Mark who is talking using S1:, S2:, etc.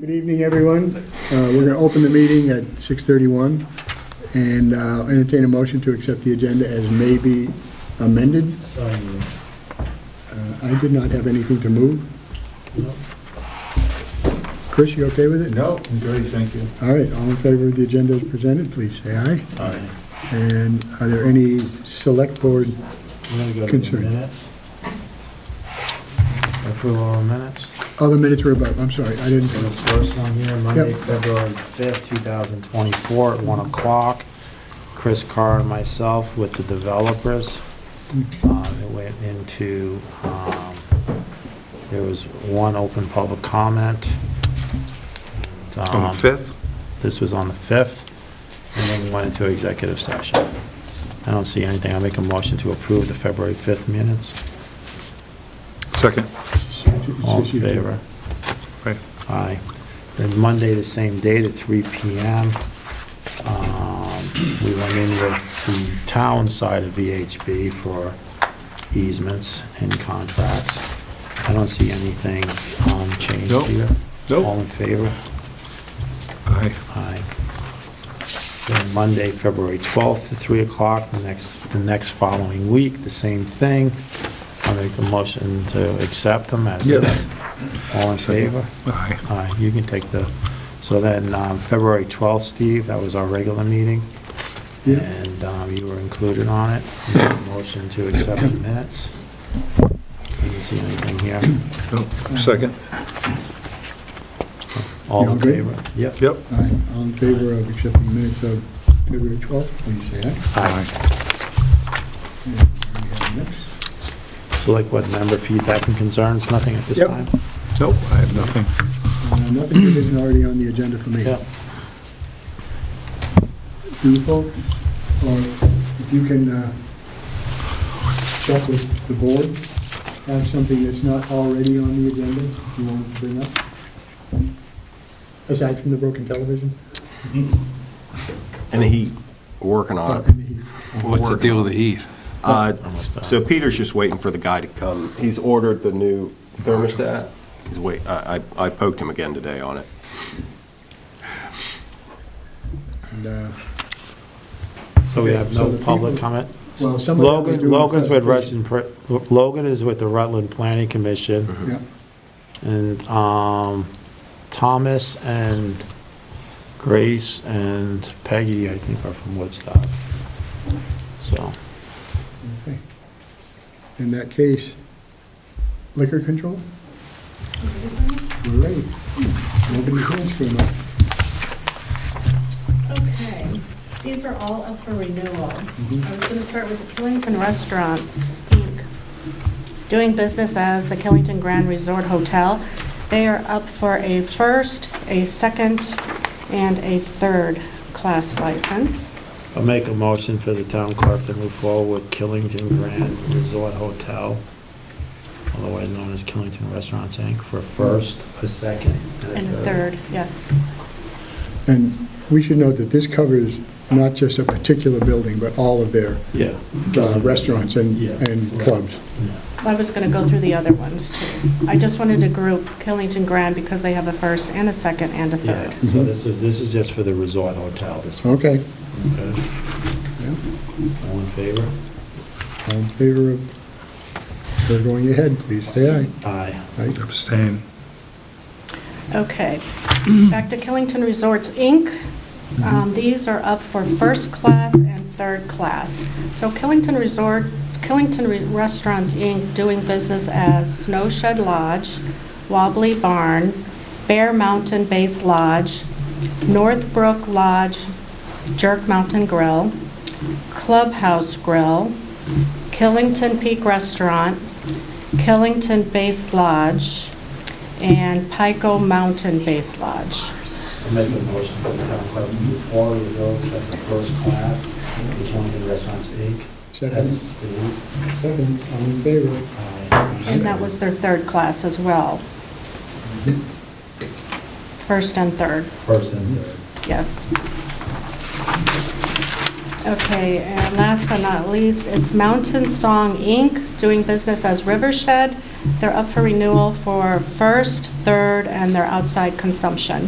S1: Good evening, everyone. Uh, We're going to open the meeting at 6:31 and uh, entertain a motion to accept the agenda as may be amended. Uh, I did not have anything to move. Chris, you okay with it?
S2: No, I'm good, thank you.
S1: All right, all in favor of the agenda as presented, please say aye.
S2: All right.
S1: And are there any select board,
S2: We're gonna go to the
S1: Concern.
S2: minutes. Approval of minutes.
S1: other minutes were about, I'm sorry, I didn't.
S2: So the first one here, Monday,
S1: Yep.
S2: February 5th, 2024, at 1 o'clock. Chris Carr and myself with the developers. Uh, It went into, um, there was one open public comment.
S3: On the
S2: Um,
S3: 5th?
S2: This was on the 5th, and then we went into executive session. I don't see anything. I make a motion to approve the February 5th minutes.
S3: Second.
S2: All in favor?
S3: Right.
S2: Aye. Then Monday, the same date at 3 PM, um, we went in with the town side of VHB for easements and contracts. I don't see anything um, changed
S3: Nope.
S2: here.
S3: Nope.
S2: All in favor?
S3: Aye.
S2: Aye. Then Monday, February 12th, at 3 o'clock, the next, the next following week, the same thing. I make a motion to accept them as is.
S3: Yes.
S2: All in favor?
S3: Aye.
S2: Aye, you can take the, so then, um, February 12th, Steve, that was our regular meeting,
S1: Yeah.
S2: and um, you were included on it. Make a Motion to accept the minutes. You can see anything here.
S3: Second.
S2: All in
S1: You okay?
S2: favor? Yep.
S3: Yep.
S1: All right, all in favor of accepting the minutes of February 12th, please say aye.
S2: Aye.
S1: And we have next.
S2: Select what member feedback and concerns, nothing at this
S1: Yep.
S2: time?
S3: Nope, I have nothing.
S1: Uh, Nothing that isn't already on the agenda for me.
S2: Yep.
S1: Do you folks, or if you can uh, check with the board, have something that's not already on the agenda you want to bring up? Aside from the broken television?
S4: And the heat, we're working
S1: Uh,
S4: on it.
S3: What's the deal with the heat?
S4: Uh,
S2: Almost done.
S4: So Peter's just waiting for the guy to come. He's ordered the new thermostat. He's wait, I, I I poked him again today on it.
S1: And, uh,
S2: So we have no
S1: So the
S2: public
S1: people-
S2: comment?
S1: Well, some of them are
S2: Logan,
S1: doing-
S2: Logan's with Rutland, Pr- Logan is with the Rutland Planning Commission,
S1: Yeah.
S2: and um, Thomas and Grace and Peggy, I think, are from Woodstock. So,
S1: Okay. In that case, liquor control? We're ready. Nobody calls for much.
S5: Okay, these are all up for renewal.
S1: Mm-hmm.
S5: I was going to start with Killington Restaurants, Inc., doing business as the Killington Grand Resort Hotel. They are up for a first, a second, and a third class license.
S2: I'll make a motion for the town clerk to move forward with Killington Grand Resort Hotel, otherwise known as Killington Restaurants, Inc., for first, a second,
S5: And a third, yes.
S1: And we should note that this covers not just a particular building, but all of their
S2: Yeah.
S1: uh, restaurants and,
S2: Yeah.
S1: and clubs.
S2: Yeah.
S5: I was going to go through the other ones, too. I just wanted to group Killington Grand because they have a first and a second and a
S2: Yeah,
S5: third.
S2: so this is, this is just for the resort hotel, this one.
S1: Mm-hmm. Okay.
S2: Okay.
S1: Yeah.
S2: All in favor?
S1: All in favor of, we're going ahead, please say aye.
S2: Aye.
S1: Aye.
S3: Abstain.
S5: Okay, back to Killington Resorts, Inc. Um, These are up for first class and third class. So Killington Resort, Killington Re- Restaurants, Inc., doing business as Snow Shed Lodge, Wobbly Barn, Bear Mountain Base Lodge, Northbrook Lodge, Jerk Mountain Grill, Clubhouse Grill, Killington Peak Restaurant, Killington Base Lodge, and Pico Mountain Base Lodge.
S2: I make a motion for the town clerk to move forward with those as a first class, the Killington Restaurants Inc.
S1: Second.
S2: That's the, uh,
S1: Second, all in favor.
S2: aye.
S5: And that was their third class as well. First and third,
S2: First and third.
S5: yes. Okay, and last but not least, it's Mountain Song, Inc., doing business as Rivershed, They're up for renewal for first, third, and their outside consumption.